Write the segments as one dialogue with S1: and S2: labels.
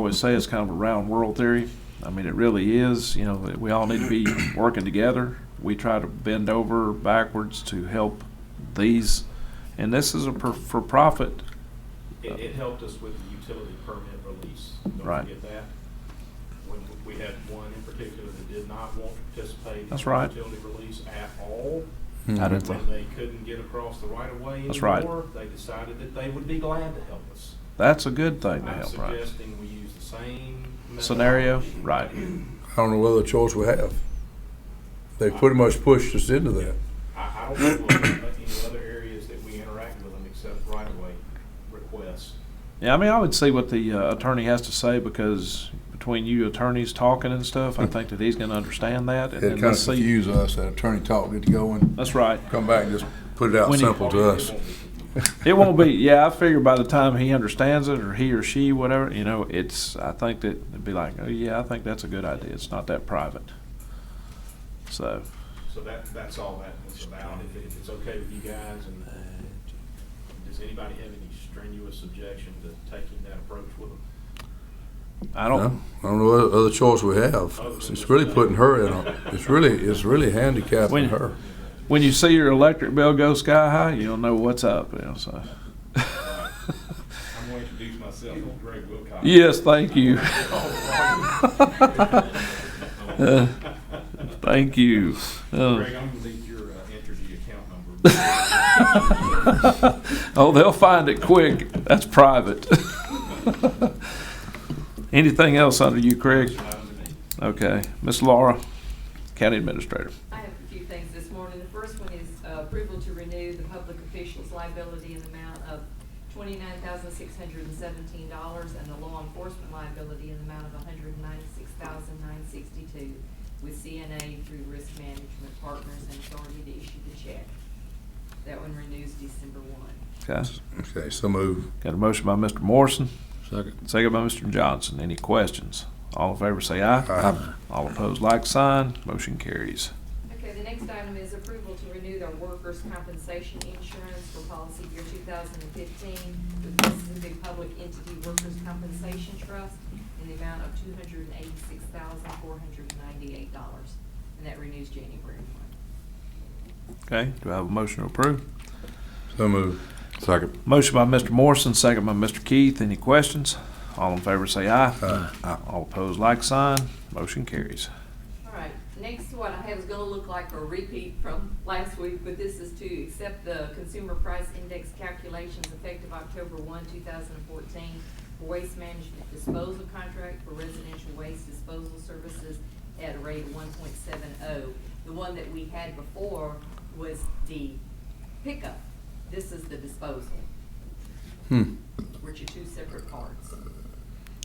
S1: always say it's kind of a round world theory. I mean, it really is, you know, that we all need to be working together. We try to bend over backwards to help these, and this is a per- for-profit,
S2: It, it helped us with the utility permit release.
S1: Right.
S2: Don't forget that. When we had one in particular that did not want to participate in
S1: That's right.
S2: the utility release at all.
S1: I didn't
S2: When they couldn't get across the right of way
S1: That's right.
S2: anymore, they decided that they would be glad to help us.
S1: that's a good thing to
S2: I'm
S1: help, right?
S2: suggesting we use the same.
S1: Scenario,
S2: methodology.
S1: right.
S3: I don't know what other choice we have. They pretty much pushed us into that.
S2: I, I don't know of any other areas that we interact with them except right of way requests.
S1: Yeah, I mean, I would see what the uh, attorney has to say because between you attorneys talking and stuff, I think that he's going to understand that. And
S3: It
S1: then
S3: kind
S1: let's
S3: of
S1: see.
S3: confused us, that attorney talk, get to going,
S1: That's right.
S3: come back and just put it out
S1: When you-
S3: simple to us.
S2: It won't be
S1: It won't be, yeah, I figure by the time he understands it or he or she, whatever, you know, it's, I think that it'd be like, oh, yeah, I think that's a good idea. It's not that private. So,
S2: So that, that's all that was about, if, if it's okay with you guys, and does anybody have any strenuous objection to taking that approach with them?
S1: I
S3: No,
S1: don't,
S3: I don't know what other choice we have. It's really putting her in a, it's really, it's really
S1: When-
S3: handicapping her.
S1: when you see your electric bill go sky high, you'll know what's up, you know, so.
S2: I'm going to introduce myself, I'm Greg Wilcox.
S1: Yes, thank you. Uh, Thank you. Uh,
S2: Greg, I'm gonna need your uh, Entergy account number.
S1: Oh, they'll find it quick. That's private. Anything else under you, Craig? Okay. Miss Laura, County Administrator.
S4: I have a few things this morning. The first one is uh, approval to renew the public officials liability in the amount of twenty-nine thousand six hundred and seventeen dollars and the law enforcement liability in the amount of $196,962 with CNA through Risk Management Partners and authority to issue the check. That one renews December one.
S1: Okay.
S3: Okay, so move.
S1: Got a motion by Mr. Morrison,
S3: Second.
S1: second by Mr. Johnson. Any questions? All in favor say aye.
S3: Aye.
S1: All opposed, like sign. Motion carries.
S4: Okay, the next item is approval to renew their workers' compensation insurance for policy year two thousand and fifteen with Mississippi Public Entity Workers' Compensation Trust in the amount of two hundred and eighty-six thousand, four hundred and ninety-eight dollars. And that renews January one.
S1: Okay. Do I have a motion to approve?
S3: So move. Second.
S1: Motion by Mr. Morrison, second by Mr. Keith. Any questions? All in favor say aye.
S3: Aye.
S1: All opposed, like sign. Motion carries.
S4: All right, next one I have is gonna look like a repeat from last week, but this is to accept the consumer price index calculations effective October one, two thousand and fourteen for waste management disposal contract for residential waste disposal services at a rate of one point seven oh. The one that we had before was the pickup. This is the disposal,
S3: Hmm.
S4: which are two separate parts.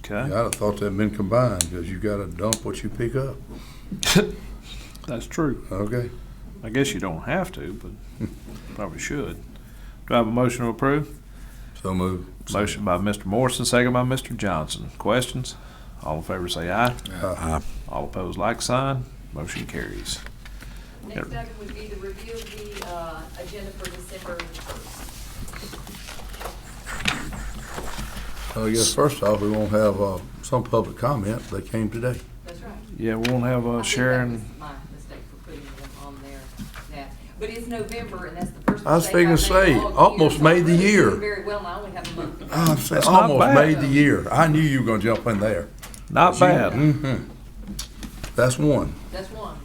S1: Okay.
S3: I'd have thought that'd been combined, because you gotta dump what you pick up.
S1: That's true.
S3: Okay,
S1: I guess you don't have to, but probably should. Do I have a motion to approve?
S3: so move.
S1: Motion by Mr. Morrison, second by Mr. Johnson. Questions? All in favor say aye.
S3: Aye.
S1: All opposed, like sign. Motion carries.
S4: Next item would be the review of the, uh, agenda for December first.
S3: I guess first off, we won't have, uh, some public comment. They came today.
S4: That's right.
S1: Yeah, we won't have
S4: I
S1: uh,
S4: think that was
S1: Sharon.
S4: My mistake for putting them on there, that, but it's November and that's the first.
S3: I was
S4: mistake I've
S3: figuring to
S4: made all
S3: say,
S4: year,
S3: almost
S4: so
S3: made the
S4: I'm doing
S3: year. Ah.
S4: Very well, and I only have a month. to go.
S3: I said,
S1: not
S3: almost
S1: bad.
S3: made the year. I knew you were gonna jump in there.
S1: Not bad.
S3: Mm-hmm. That's one.
S4: That's one.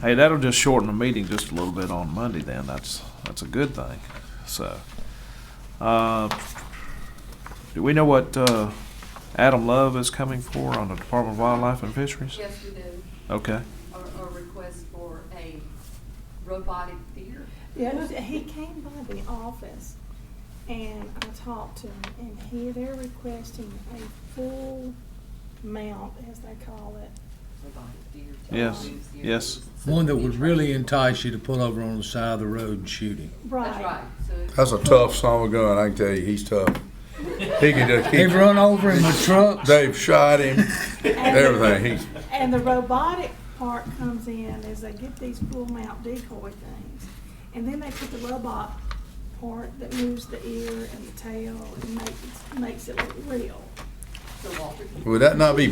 S1: Hey, that'll just shorten the meeting just a little bit on Monday then. That's, that's a good thing. So, uh, do we know what, uh, Adam Love is coming for on the Department of Wildlife and Fisheries? Oh.
S4: Yes, we do,
S1: Okay.
S4: or, or request for a robotic theater.
S5: Yes, he came by the office and I talked to him and he, they're requesting a full mount, as they call it.
S4: Robotic theater.
S1: Yes, yes.
S6: One that would really entice you to pull over on the side of the road and shoot him.
S4: That's right, so. it's-
S3: That's a tough son of a gun, I can tell you. He's tough. He can just
S6: They've
S3: keep,
S6: run over in my truck.
S3: they've shot him,
S5: And-
S3: everything. He's,
S5: And the robotic part comes in is they get these full mount decoy things. And then they put the robot part that moves the ear and the tail and makes, makes it look real.
S4: So Walter can
S3: Would that not be